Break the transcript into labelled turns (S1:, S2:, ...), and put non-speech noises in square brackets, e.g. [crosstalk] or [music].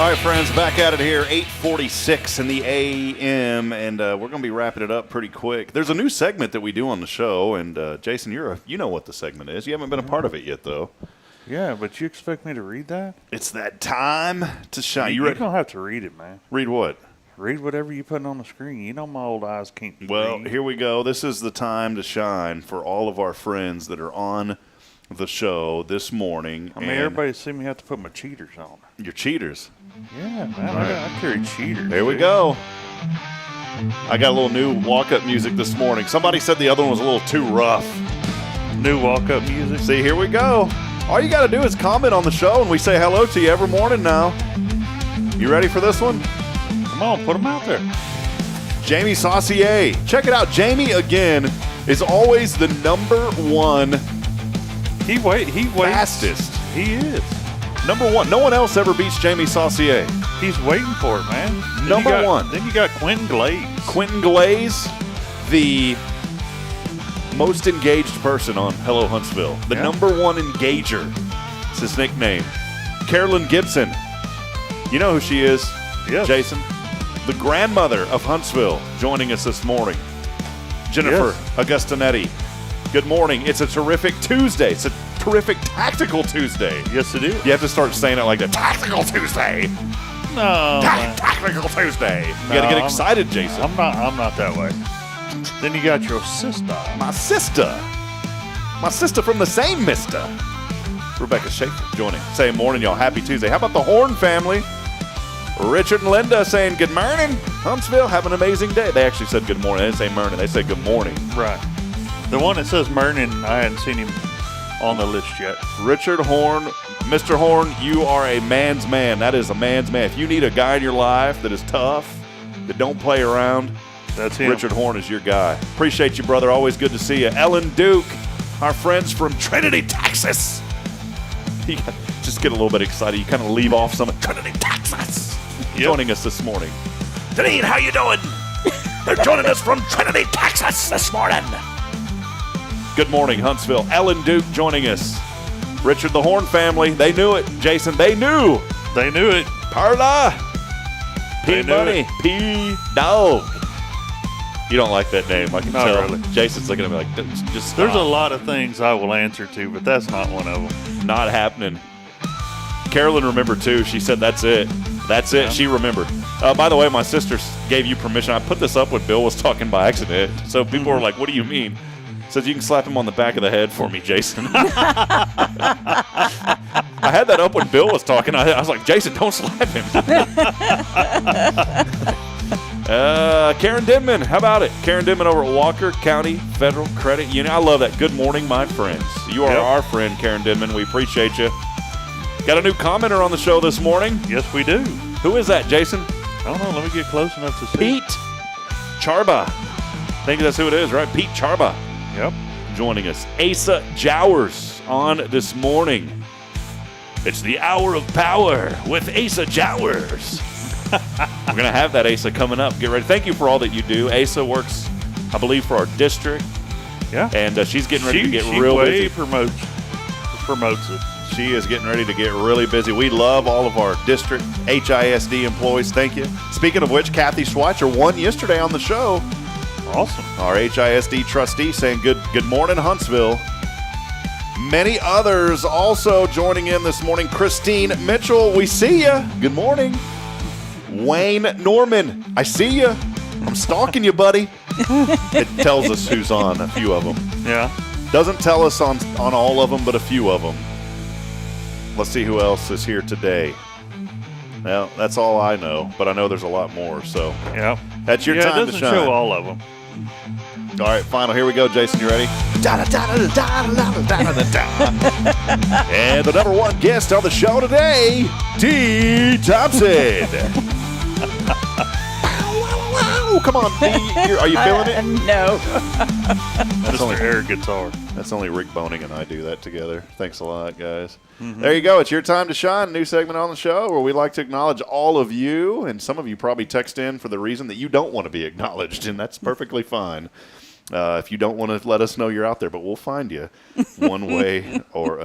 S1: All right, friends, back at it here, 846 in the AM, and uh, we're going to be wrapping it up pretty quick. There's a new segment that we do on the show, and uh, Jason, you're a, you know what the segment is. You haven't been a part of it yet, though.
S2: Yeah, but you expect me to read that?
S1: It's that time to shine. You
S2: You
S1: read,
S2: don't have to read it, man.
S1: read what?
S2: Read whatever you put on the screen. You know my old eyes can't.
S1: Well,
S2: read.
S1: here we go. This is the time to shine for all of our friends that are on the show this morning.
S2: I mean,
S1: and
S2: everybody's seen me have to put my cheaters on.
S1: You're cheaters.
S2: Yeah, man, I, got- I carry cheaters.
S1: There we
S2: dude.
S1: go. I got a little new walk up music this morning. Somebody said the other one was a little too rough.
S2: New walk-up music.
S1: See, here we go. All you got to do is comment on the show, and we say hello to you every morning now. You ready for this one?
S2: Come on, put them out there.
S1: Jamie Saucier. Check it out. Jamie, again, is always the number one
S2: He wait. He waits.
S1: fastest.
S2: He is.
S1: Number one. No one else ever beats Jamie Saucier.
S2: He's waiting for it, man. Then you
S1: Number
S2: got-
S1: one.
S2: Then you got Quinn Glades.
S1: Quentin Glaze, the most engaged person on Hello Huntsville, the
S2: Yeah.
S1: number one engager. It's his nickname. Carolyn Gibson. You know who she is,
S2: Yes.
S1: Jason? The grandmother of Huntsville joining us this morning. Jennifer Augustinetti. Good morning. It's a terrific Tuesday. It's a terrific tactical Tuesday.
S2: Yes, it is.
S1: You have to start saying it like that. Tactical Tuesday.
S2: No, man.
S1: Tactical Tuesday. You got to get
S2: No,
S1: excited, Jason.
S2: I'm not. I'm not that way. Then you got your sister.
S1: my sister, my sister from the same mister, Rebecca Schaefer, joining. Saying morning, y'all. Happy Tuesday. How about the Horn family? Richard and Linda saying good morning. Huntsville, have an amazing day. They actually said good morning. They didn't say morning. They said good morning.
S2: Right. The one that says Mernon, I hadn't seen him on the list yet.
S1: Richard Horn, Mr. Horn, you are a man's man. That is a man's man. If you need a guy in your life that is tough, that don't play around,
S2: That's him.
S1: Richard Horn is your guy. Appreciate you, brother. Always good to see you. Ellen Duke, our friends from Trinity, Texas. [laughs] You got- just get a little bit excited. You kind of leave off some Trinity, Texas. Joining us this morning. Deneen, how you doing? They're joining us from Trinity, Texas this morning. Good morning, Huntsville. Ellen Duke joining us. Richard the Horn family, they knew it. Jason, they knew.
S2: They knew it.
S1: Perla. P
S2: They knew
S1: Money. P Dog. You don't like that name, I can
S2: Not
S1: tell.
S2: really.
S1: Jason's looking at me like, "Just- just stop.
S2: There's a lot of things I will answer to, but that's not one of them.
S1: not happening. Carolyn remembered too. She said, "That's it, that's it." She remembered. Uh, by the way, my sister s- gave you permission. I put this up when Bill was talking by accident, so people
S2: Mm-hmm.
S1: were like, "What do you mean?" Says you can slap him on the back of the head for me, Jason. I had that up when Bill was talking. I, I was like, Jason, don't slap him. Uh, Karen Denman, how about it? Karen Denman over at Walker County Federal Credit Union. I love that. Good morning, my friends. You are
S2: Yep.
S1: our friend, Karen Denman. We appreciate you. Got a new commenter on the show this morning.
S2: Yes, we do.
S1: Who is that, Jason?
S2: I don't know. Let me get close enough to see.
S1: Pete Charba. I think that's who it is, right? Pete Charba
S2: Yep.
S1: joining us. Asa Jowers on this morning. It's the hour of power with Asa Jowers. We're going to have that Asa coming up. Get ready. Thank you for all that you do. Asa works, I believe, for our district,
S2: Yeah.
S1: and uh, she's getting ready
S2: she
S1: to get
S2: she
S1: real
S2: way
S1: busy.
S2: promotes promotes it.
S1: She is getting ready to get really busy. We love all of our district HISD employees. Thank you. Speaking of which, Kathy Schweitzer won yesterday on the show.
S2: Awesome.
S1: Our HISD trustee saying good good morning, Huntsville. Many others also joining in this morning. Christine Mitchell, we see ya. Good morning. Wayne Norman, I see ya. I'm stalking you, buddy. it tells us who's on a few of them.
S2: Yeah.
S1: Doesn't tell us on on all of them, but a few of them. Let's see who else is here today. Now that's all I know, but I know there's a lot more. So
S2: Yeah.
S1: that's your
S2: yeah,
S1: time
S2: it doesn't
S1: to shine.
S2: show all of them.
S1: All right, final. Here we go, Jason. You ready? and the number one guest on the show today, D. Thompson. Wow, Come on, D. You're- Are you feeling it?
S3: No.
S1: That's
S2: Mr.
S1: only,
S2: Air guitar.
S1: that's only Rick Boning and I do that together. Thanks a lot, guys. There you go. It's your time to shine. New segment on the show where we like to acknowledge all of you, and some of you probably text in for the reason that you don't want to be acknowledged, and that's perfectly fine. Uh, if you don't want to let us know you're out there, but we'll find you one way or